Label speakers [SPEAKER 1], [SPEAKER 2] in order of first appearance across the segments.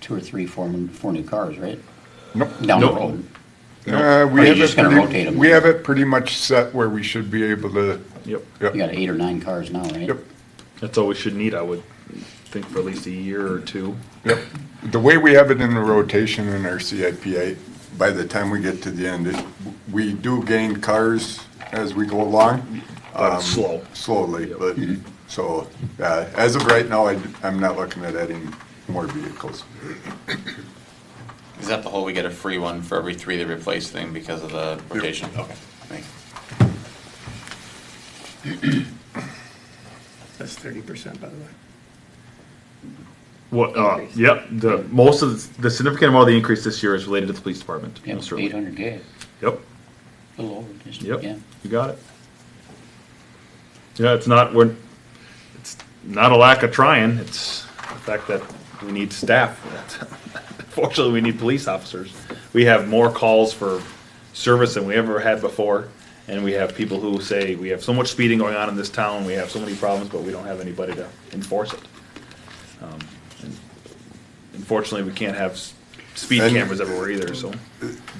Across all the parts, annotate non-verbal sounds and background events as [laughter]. [SPEAKER 1] two or three, four, new- four new cars, right?
[SPEAKER 2] Nope.
[SPEAKER 1] Down the
[SPEAKER 3] Nope.
[SPEAKER 1] road.
[SPEAKER 2] Uh,
[SPEAKER 1] Or
[SPEAKER 2] we
[SPEAKER 1] you're
[SPEAKER 2] have
[SPEAKER 1] just
[SPEAKER 2] it
[SPEAKER 1] gonna
[SPEAKER 2] pretty,
[SPEAKER 1] rotate 'em?
[SPEAKER 2] we have it pretty much set where we should be able to,
[SPEAKER 3] Yep.
[SPEAKER 1] You
[SPEAKER 2] yep,
[SPEAKER 1] got eight or nine cars now, right?
[SPEAKER 2] yep,
[SPEAKER 3] That's all we should need, I would think, for at least a year or two.
[SPEAKER 2] yep. The way we have it in the rotation in our CIPA, by the time we get to the end, it, we do gain cars as we go along.
[SPEAKER 3] But
[SPEAKER 2] um,
[SPEAKER 3] it's slow.
[SPEAKER 2] Slowly,
[SPEAKER 3] Yep.
[SPEAKER 2] but, so, uh, as of right now, I, am not looking at adding more vehicles.
[SPEAKER 4] Is that the whole, we get a free one for every three they replace thing because of the rotation? Okay. Thanks.
[SPEAKER 5] That's thirty percent, by the way.
[SPEAKER 3] What, uh, yep, the, most of, the- the significant amount of the increase this year is related to the police department.
[SPEAKER 1] Yeah, eight
[SPEAKER 3] most certainly.
[SPEAKER 1] hundred K,
[SPEAKER 3] Yep,
[SPEAKER 1] a little over, just, yeah.
[SPEAKER 3] yep, you got it. Yeah, it's not, we're, it's not a lack of trying, it's the fact that we need staff. [laughs] Fortunately, we need police officers. We have more calls for service than we ever had before. And we have people who say, we have so much speeding going on in this town, we have so many problems, but we don't have anybody to enforce it. Um, and Unfortunately, we can't have s- speed
[SPEAKER 2] And-
[SPEAKER 3] cameras everywhere either, so.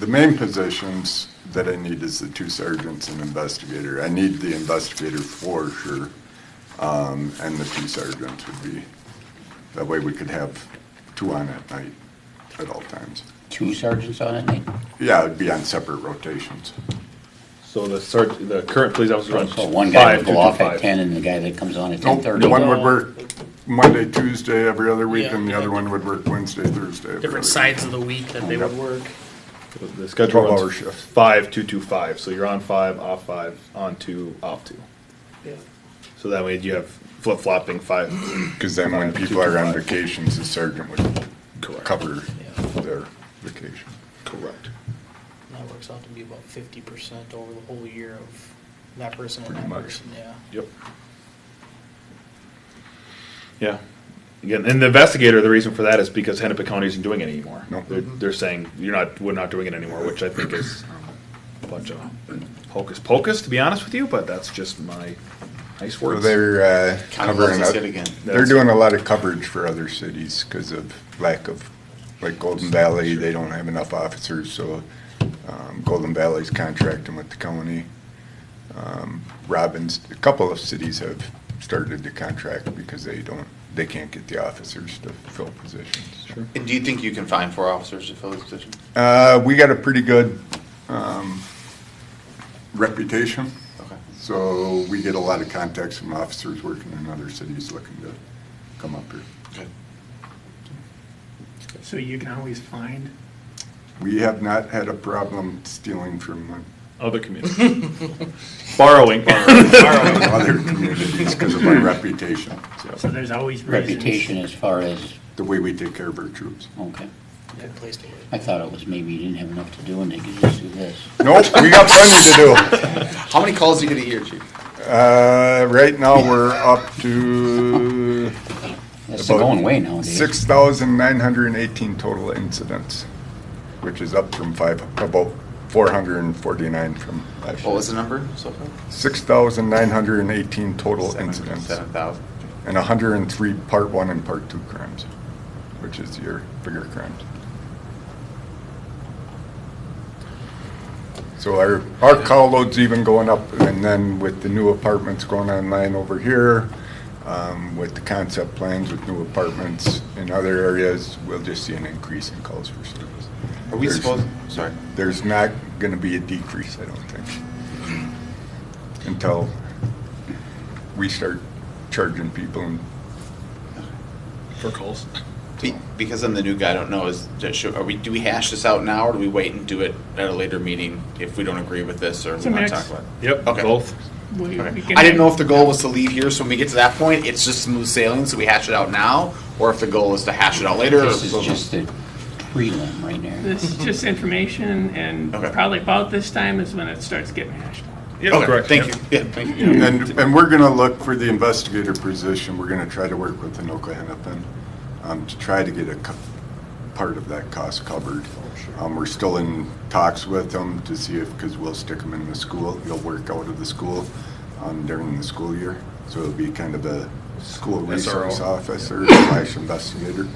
[SPEAKER 2] The main positions that I need is the two sergeants and investigator. I need the investigator for sure, um, and the two sergeants would be, that way we could have two on at night at all times.
[SPEAKER 1] Two sergeants on it, Nate?
[SPEAKER 2] Yeah, it'd be on separate rotations.
[SPEAKER 3] So the serg, the current police officer runs
[SPEAKER 1] So one guy
[SPEAKER 3] five,
[SPEAKER 1] would go
[SPEAKER 3] two, two,
[SPEAKER 1] off at
[SPEAKER 3] five.
[SPEAKER 1] ten and the guy that comes on at ten
[SPEAKER 2] Nope,
[SPEAKER 1] thirty.
[SPEAKER 2] one would work Monday, Tuesday, every other week,
[SPEAKER 6] Yeah.
[SPEAKER 2] and the other one would work Wednesday, Thursday. every other
[SPEAKER 6] different
[SPEAKER 2] week.
[SPEAKER 6] sides of the week that they would
[SPEAKER 2] Yep.
[SPEAKER 6] work.
[SPEAKER 3] The schedule
[SPEAKER 2] 12 hour
[SPEAKER 3] runs
[SPEAKER 2] shift.
[SPEAKER 3] five, two, two, five, so you're on five, off five, on two, off two.
[SPEAKER 6] Yeah.
[SPEAKER 3] So that way you have flip-flopping five.
[SPEAKER 2] Cause then when people are on vacations, the sergeant would
[SPEAKER 3] Correct.
[SPEAKER 2] cover
[SPEAKER 6] Yeah.
[SPEAKER 2] their vacation.
[SPEAKER 3] Correct.
[SPEAKER 6] That works out to be about fifty percent over the whole year of that person and
[SPEAKER 2] Pretty
[SPEAKER 6] that
[SPEAKER 2] much.
[SPEAKER 6] person, yeah.
[SPEAKER 3] Yep. Yeah. Again, and the investigator, the reason for that is because Hennepin County isn't doing it anymore.
[SPEAKER 2] No.
[SPEAKER 3] They're,
[SPEAKER 1] Mm-hmm.
[SPEAKER 3] they're saying, you're not, we're not doing it anymore, which I think is a bunch of hocus pocus, to be honest with you, but that's just my nice
[SPEAKER 2] Well,
[SPEAKER 3] words.
[SPEAKER 2] They're uh,
[SPEAKER 4] Kind of
[SPEAKER 2] covering
[SPEAKER 4] lets us
[SPEAKER 2] up.
[SPEAKER 4] hit again.
[SPEAKER 2] They're doing a lot of coverage for other cities because of lack of, like Golden Valley, they don't have enough officers, so um, Golden Valley's contracting with the county. Um, Robbins, a couple of cities have started to contract because they don't, they can't get the officers to fill positions.
[SPEAKER 3] Sure.
[SPEAKER 4] And do you think you can find four officers to fill this position?
[SPEAKER 2] Uh, we got a pretty good um, reputation.
[SPEAKER 4] Okay.
[SPEAKER 2] So we get a lot of contacts from officers working in other cities looking to come up here.
[SPEAKER 4] Good.
[SPEAKER 5] So you can always find,
[SPEAKER 2] We have not had a problem stealing from uh,
[SPEAKER 3] Other communities. [laughs] Borrowing.
[SPEAKER 4] [laughs]
[SPEAKER 2] uh, from other communities because of our reputation,
[SPEAKER 5] so
[SPEAKER 2] so
[SPEAKER 5] there's always reasons.
[SPEAKER 1] Reputation as far as,
[SPEAKER 2] the way we take care of our troops.
[SPEAKER 1] okay.
[SPEAKER 6] Good place to work.
[SPEAKER 1] I thought it was maybe you didn't have enough to do and they could just do this.
[SPEAKER 2] Nope, we got plenty to
[SPEAKER 4] How many calls do you get a year, chief?
[SPEAKER 2] do. Uh, Right now, we're up to
[SPEAKER 1] That's the
[SPEAKER 2] About
[SPEAKER 1] going way nowadays.
[SPEAKER 2] 6,918 total incidents, which is up from five, about 449 from last
[SPEAKER 4] What was
[SPEAKER 2] year.
[SPEAKER 4] the number so far?
[SPEAKER 2] 6,918 total incidents.
[SPEAKER 4] Seven thousand.
[SPEAKER 2] and 103 part one and part two crimes, which is your bigger crimes. So our, our call load's even going up, and then with the new apartments going online over here, um, with the concept plans with new apartments in other areas, we'll just see an increase in calls for service.
[SPEAKER 4] Are we
[SPEAKER 2] There's-
[SPEAKER 4] supposed, sorry.
[SPEAKER 2] There's not gonna be a decrease, I don't think, until we start charging people and
[SPEAKER 3] For calls.
[SPEAKER 4] Be- Because I'm the new guy, I don't know, is, should- are we, do we hash this out now or do we wait and do it at a later meeting if we don't agree with this or
[SPEAKER 5] It's a
[SPEAKER 4] we want
[SPEAKER 5] mix.
[SPEAKER 4] to talk about it?
[SPEAKER 3] Yep,
[SPEAKER 4] Okay.
[SPEAKER 3] both.
[SPEAKER 5] We- we
[SPEAKER 4] Okay.
[SPEAKER 5] can-
[SPEAKER 4] I didn't know if the goal was to leave here, so when we get to that point, it's just smooth sailing, so we hash it out now, or if the goal is to hash it out later.
[SPEAKER 1] This is
[SPEAKER 4] or-
[SPEAKER 1] just the prelim right there.
[SPEAKER 5] This is just information, and
[SPEAKER 4] Okay.
[SPEAKER 5] probably about this time is when it starts getting hashed out.
[SPEAKER 3] Yeah,
[SPEAKER 4] Okay,
[SPEAKER 3] correct.
[SPEAKER 4] thank
[SPEAKER 3] Yep.
[SPEAKER 4] you, yeah, thank you.
[SPEAKER 2] And, and we're gonna look for the investigator position, we're gonna try to work with Anoka Hennepin, um, to try to get a co- part of that cost covered. Um, we're still in talks with them to see if, cause we'll stick them in the school, they'll work out of the school, um, during the school year. So it'll be kind of a school
[SPEAKER 3] SRO.
[SPEAKER 2] resource officer slash investigator.